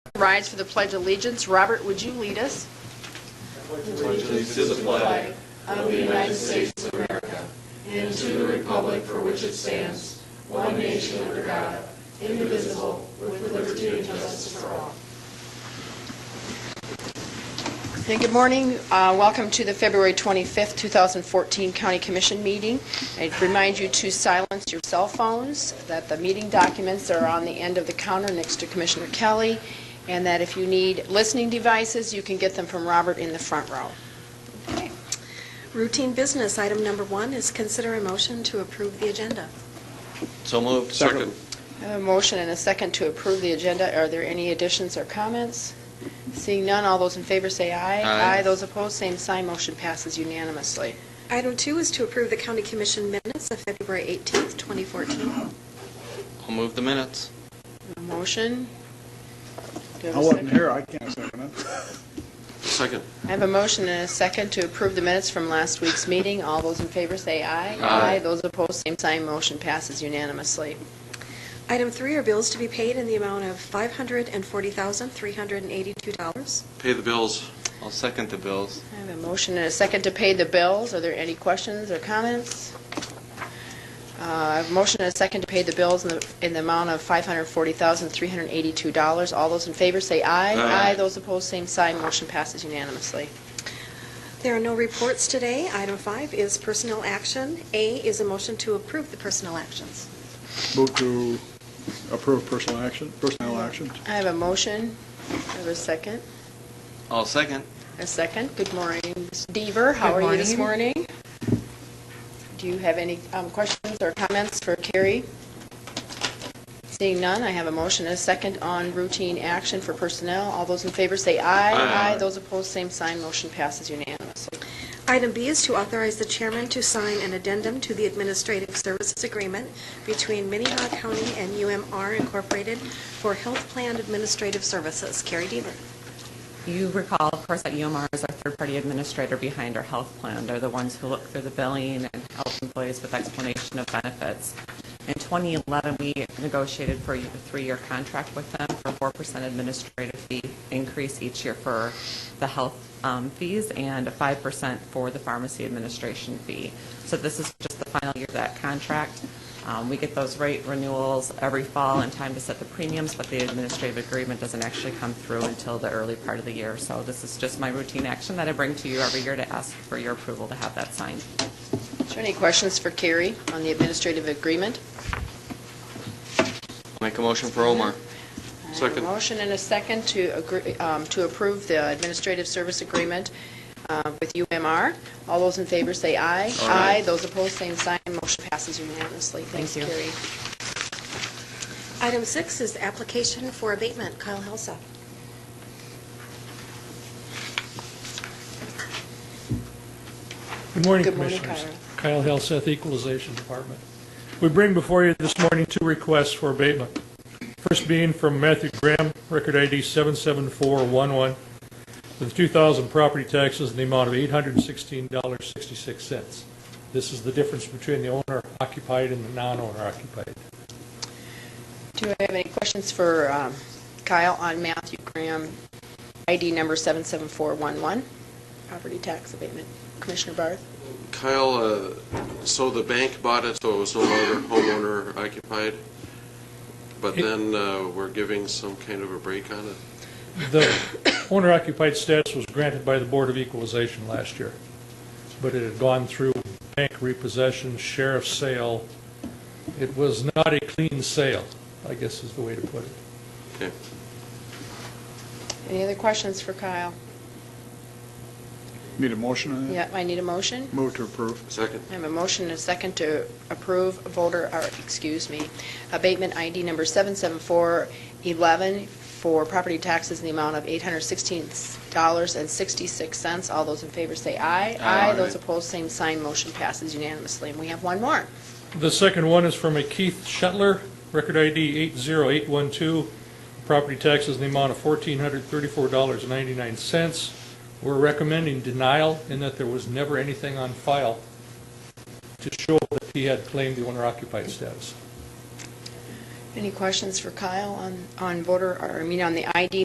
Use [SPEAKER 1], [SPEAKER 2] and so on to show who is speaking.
[SPEAKER 1] rise for the Pledge of Allegiance. Robert, would you lead us? Hey, Good morning. Uh, Welcome to the February 25th, 2014 County Commission meeting. I'd remind you to silence your cell phones, that the meeting documents are on the end of the counter next to Commissioner Kelly, and that if you need listening devices, you can get them from Robert in the front row.
[SPEAKER 2] Okay. Routine business, item number one is consider a motion to approve the agenda.
[SPEAKER 3] So moved.
[SPEAKER 4] Second.
[SPEAKER 1] I have a motion and a second to approve the agenda. Are there any additions or comments? Seeing none, all those in favor say aye.
[SPEAKER 3] Aye.
[SPEAKER 1] Those opposed, same sign. Motion passes unanimously.
[SPEAKER 2] Item two is to approve the county commission minutes of February 18th, 2014.
[SPEAKER 3] I'll move the minutes.
[SPEAKER 1] A Motion? Do you have
[SPEAKER 4] I
[SPEAKER 1] a
[SPEAKER 4] wasn't
[SPEAKER 1] second?
[SPEAKER 4] here, I can't second it.
[SPEAKER 3] Second.
[SPEAKER 1] I have a motion and a second to approve the minutes from last week's meeting. All those in favor say aye.
[SPEAKER 3] Aye.
[SPEAKER 1] Those opposed, same sign. Motion passes unanimously.
[SPEAKER 2] Item three are bills to be paid in the amount of $540,382.
[SPEAKER 3] Pay the bills. I'll second the bills.
[SPEAKER 1] I have a motion and a second to pay the bills. Are there any questions or comments? Uh, I have a motion and a second to pay the bills in the in the amount of $540,382. All those in favor say aye.
[SPEAKER 3] Aye.
[SPEAKER 1] Those opposed, same sign. Motion passes unanimously.
[SPEAKER 2] There are no reports today. Item five is personnel action. A is a motion to approve the personnel actions.
[SPEAKER 4] Move to approve personal action, personnel actions.
[SPEAKER 1] I have a motion. I have a second.
[SPEAKER 3] I'll second.
[SPEAKER 1] A second. Good morning, Ms. Deaver. How are you this morning? Do you have any um, questions or comments for Carrie? Seeing none, I have a motion and a second on routine action for personnel. All those in favor say aye.
[SPEAKER 3] Aye.
[SPEAKER 1] Those opposed, same sign. Motion passes unanimously.
[SPEAKER 2] Item B is to authorize the chairman to sign an addendum to the administrative services agreement between Minnehaha County and UMR Incorporated for health plan administrative services. Carrie Deaver.
[SPEAKER 5] You recall, of course, that UMR is our third-party administrator behind our health plan. They're the ones who look through the billing and help employees with explanation of benefits. In 2011, we negotiated for a three-year contract with them for a 4% administrative fee increase each year for the health um, fees and a 5% for the pharmacy administration fee. So this is just the final year of that contract. Um, We get those rate renewals every fall in time to set the premiums, but the administrative agreement doesn't actually come through until the early part of the year. So this is just my routine action that I bring to you every year to ask for your approval to have that signed.
[SPEAKER 1] Is there any questions for Carrie on the administrative agreement?
[SPEAKER 3] Make a motion for Omar.
[SPEAKER 1] I have
[SPEAKER 3] Second.
[SPEAKER 1] a motion and a second to agree, um, to approve the administrative service agreement uh, with UMR. All those in favor say aye.
[SPEAKER 3] Aye.
[SPEAKER 1] Those opposed, same sign. Motion passes unanimously. Thanks,
[SPEAKER 5] Thank you.
[SPEAKER 1] Carrie.
[SPEAKER 2] Item six is application for abatement. Kyle Helsa.
[SPEAKER 6] Good morning,
[SPEAKER 1] Good morning,
[SPEAKER 6] Commissioners. Kyle Helseth, Equalization Department. We bring before you this morning two requests for abatement. First being from Matthew Graham, record ID 77411, with 2,000 property taxes in the amount of $816.66. This is the difference between the owner occupied and the non-owner occupied.
[SPEAKER 1] Do I have any questions for um, Kyle on Matthew Graham, ID number 77411, property tax abatement? Commissioner Barth?
[SPEAKER 7] Kyle, uh, so the bank bought it, so it was no longer homeowner occupied, but then uh, we're giving some kind of a break on it?
[SPEAKER 6] The owner occupied status was granted by the Board of Equalization last year, but it had gone through bank repossession, sheriff's sale. It was not a clean sale, I guess is the way to put it.
[SPEAKER 7] Okay.
[SPEAKER 1] Any other questions for Kyle?
[SPEAKER 4] Need a motion
[SPEAKER 3] Mm.
[SPEAKER 4] on that?
[SPEAKER 1] Yeah, I need a motion.
[SPEAKER 4] Move to approve.
[SPEAKER 7] Second?
[SPEAKER 1] I have a motion and a second to approve voter, or, excuse me, abatement ID number 77411 for property taxes in the amount of $816.66. All those in favor say aye.
[SPEAKER 3] Aye.
[SPEAKER 1] Those opposed, same sign. Motion passes unanimously. And we have one more.
[SPEAKER 6] The second one is from a Keith Shetler, record ID 80812, property taxes in the amount of $1,434.99. We're recommending denial in that there was never anything on file to show that he had claimed the owner occupied status.
[SPEAKER 1] Any questions for Kyle on, on voter, or I mean, on the ID